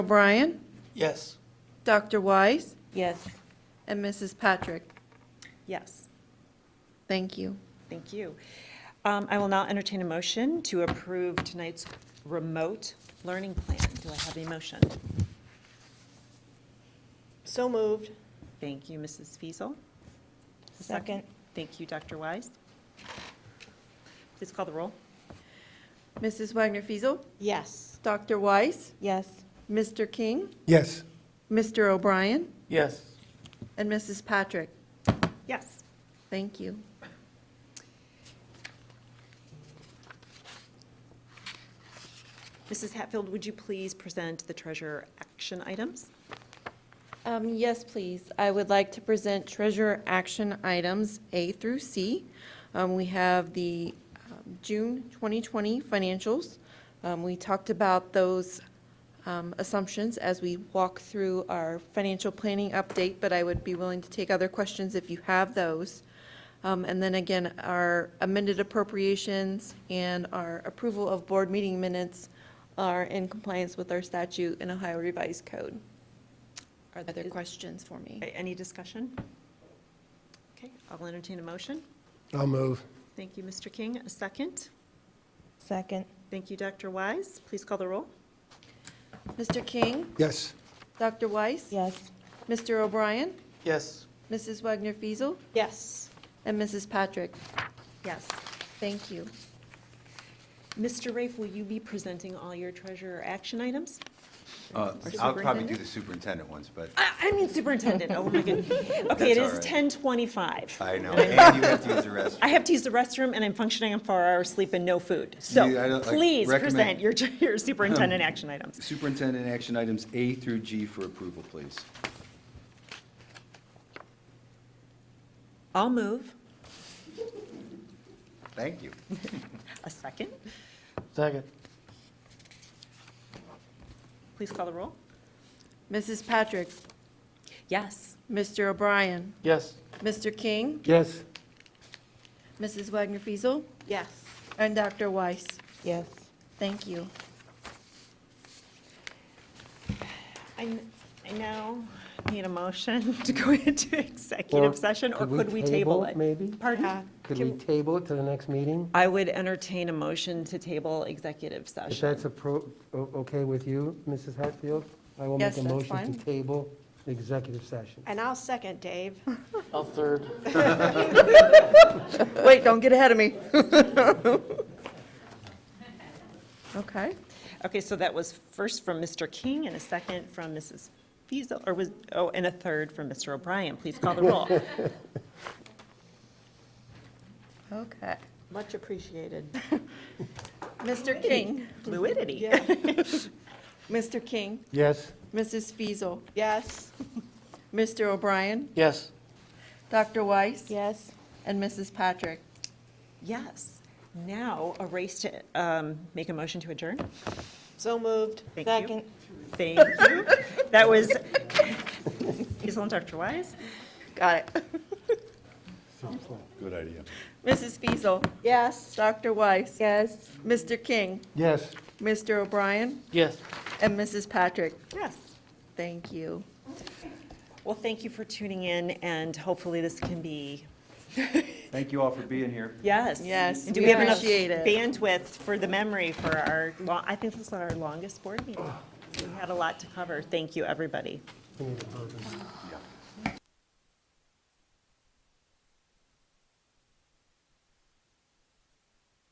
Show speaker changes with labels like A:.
A: O'Brien,
B: Yes.
A: Dr. Weiss,
C: Yes.
A: and Mrs. Patrick.
C: Yes,
A: Thank you.
C: thank you. Um, I will now entertain a motion to approve tonight's remote learning plan. Do I have a motion?
D: So moved.
C: Thank you, Mrs. Fiesel.
D: Second.
C: Thank you, Dr. Wise. Please call the roll.
A: Mrs. Wagner Fiesel,
D: Yes.
A: Dr. Weiss,
D: Yes.
A: Mr. King,
B: Yes.
A: Mr. O'Brien,
B: Yes.
A: and Mrs. Patrick.
C: Yes.
A: Thank you.
C: Mrs. Hatfield, would you please present the treasurer action items?
A: Um, Yes, please. I would like to present treasurer action items A through C. Um, We have the um, June 2020 financials. Um, We talked about those um, assumptions as we walk through our financial planning update, but I would be willing to take other questions if you have those. Um, And then again, our amended appropriations and our approval of board meeting minutes are in compliance with our statute and Ohio Revised Code. Are there questions for me?
C: A- Any discussion? Okay, I'll entertain a motion.
B: I'll move.
C: Thank you, Mr. King. A second.
D: Second.
C: Thank you, Dr. Wise. Please call the roll.
A: Mr. King,
B: Yes.
A: Dr. Weiss,
D: Yes.
A: Mr. O'Brien,
B: Yes.
A: Mrs. Wagner Fiesel,
D: Yes.
A: and Mrs. Patrick.
C: Yes.
A: Thank you.
C: Mr. Rafe, will you be presenting all your treasurer action items?
E: Uh,
C: Or
E: I'll probably do
C: superintendent?
E: the superintendent ones, but
C: I I mean superintendent, oh my goodness. Okay, it
E: That's
C: is
E: all right.
C: 10:25.
E: I know, and you have to use the
C: I
E: restroom.
C: have to use the restroom, and I'm functioning on four hours sleep and no food. So
E: You- I don't, like,
C: please present
E: recommend-
C: your your superintendent action items.
E: Superintendent action items A through G for approval, please.
C: I'll move.
E: Thank you.
C: A second.
B: Second.
C: Please call the roll.
A: Mrs. Patrick,
C: Yes.
A: Mr. O'Brien,
B: Yes.
A: Mr. King,
B: Yes.
A: Mrs. Wagner Fiesel,
D: Yes.
A: and Dr. Weiss.
D: Yes.
A: Thank you.
C: I n- I now need a motion to go into executive session, or could we table it?
F: Maybe?
C: Pardon?
F: Could we table it to the next meeting?
C: I would entertain a motion to table executive
F: If
C: session.
F: that's appro, o- okay with you, Mrs. Hatfield? I will
A: Yes,
F: make a
A: that's
F: motion
A: fine.
F: to table the executive session.
D: And I'll second, Dave.
B: I'll third.
A: Wait, don't get ahead of me. Okay.
C: Okay, so that was first from Mr. King and a second from Mrs. Fiesel, or was, oh, and a third from Mr. O'Brien. Please call the roll.
A: Okay.
D: Much appreciated.
A: Mr. King,
C: Fluidity.
A: Mr. King,
F: Yes?
A: Mrs. Fiesel,
D: Yes.
A: Mr. O'Brien,
B: Yes.
A: Dr. Weiss,
D: Yes.
A: and Mrs. Patrick.
C: Yes. Now, a race to um, make a motion to adjourn.
D: So moved.
C: Thank you.
D: Second.
C: Thank you. That was Fiesel and Dr. Wise.
A: Got it.
E: Good idea.
A: Mrs. Fiesel,
D: Yes.
A: Dr. Weiss.
D: Yes.
A: Mr. King,
F: Yes.
A: Mr. O'Brien,
B: Yes.
A: and Mrs. Patrick.
C: Yes.
A: Thank you.
C: Well, thank you for tuning in, and hopefully this can be,
E: Thank you all for being here.
C: yes.
A: Yes,
C: Do
A: we
C: we have enough
A: appreciate it.
C: bandwidth for the memory for our, lo- I think this is our longest board meeting. We had a lot to cover. Thank you, everybody.
F: We need a vote.
E: Yeah.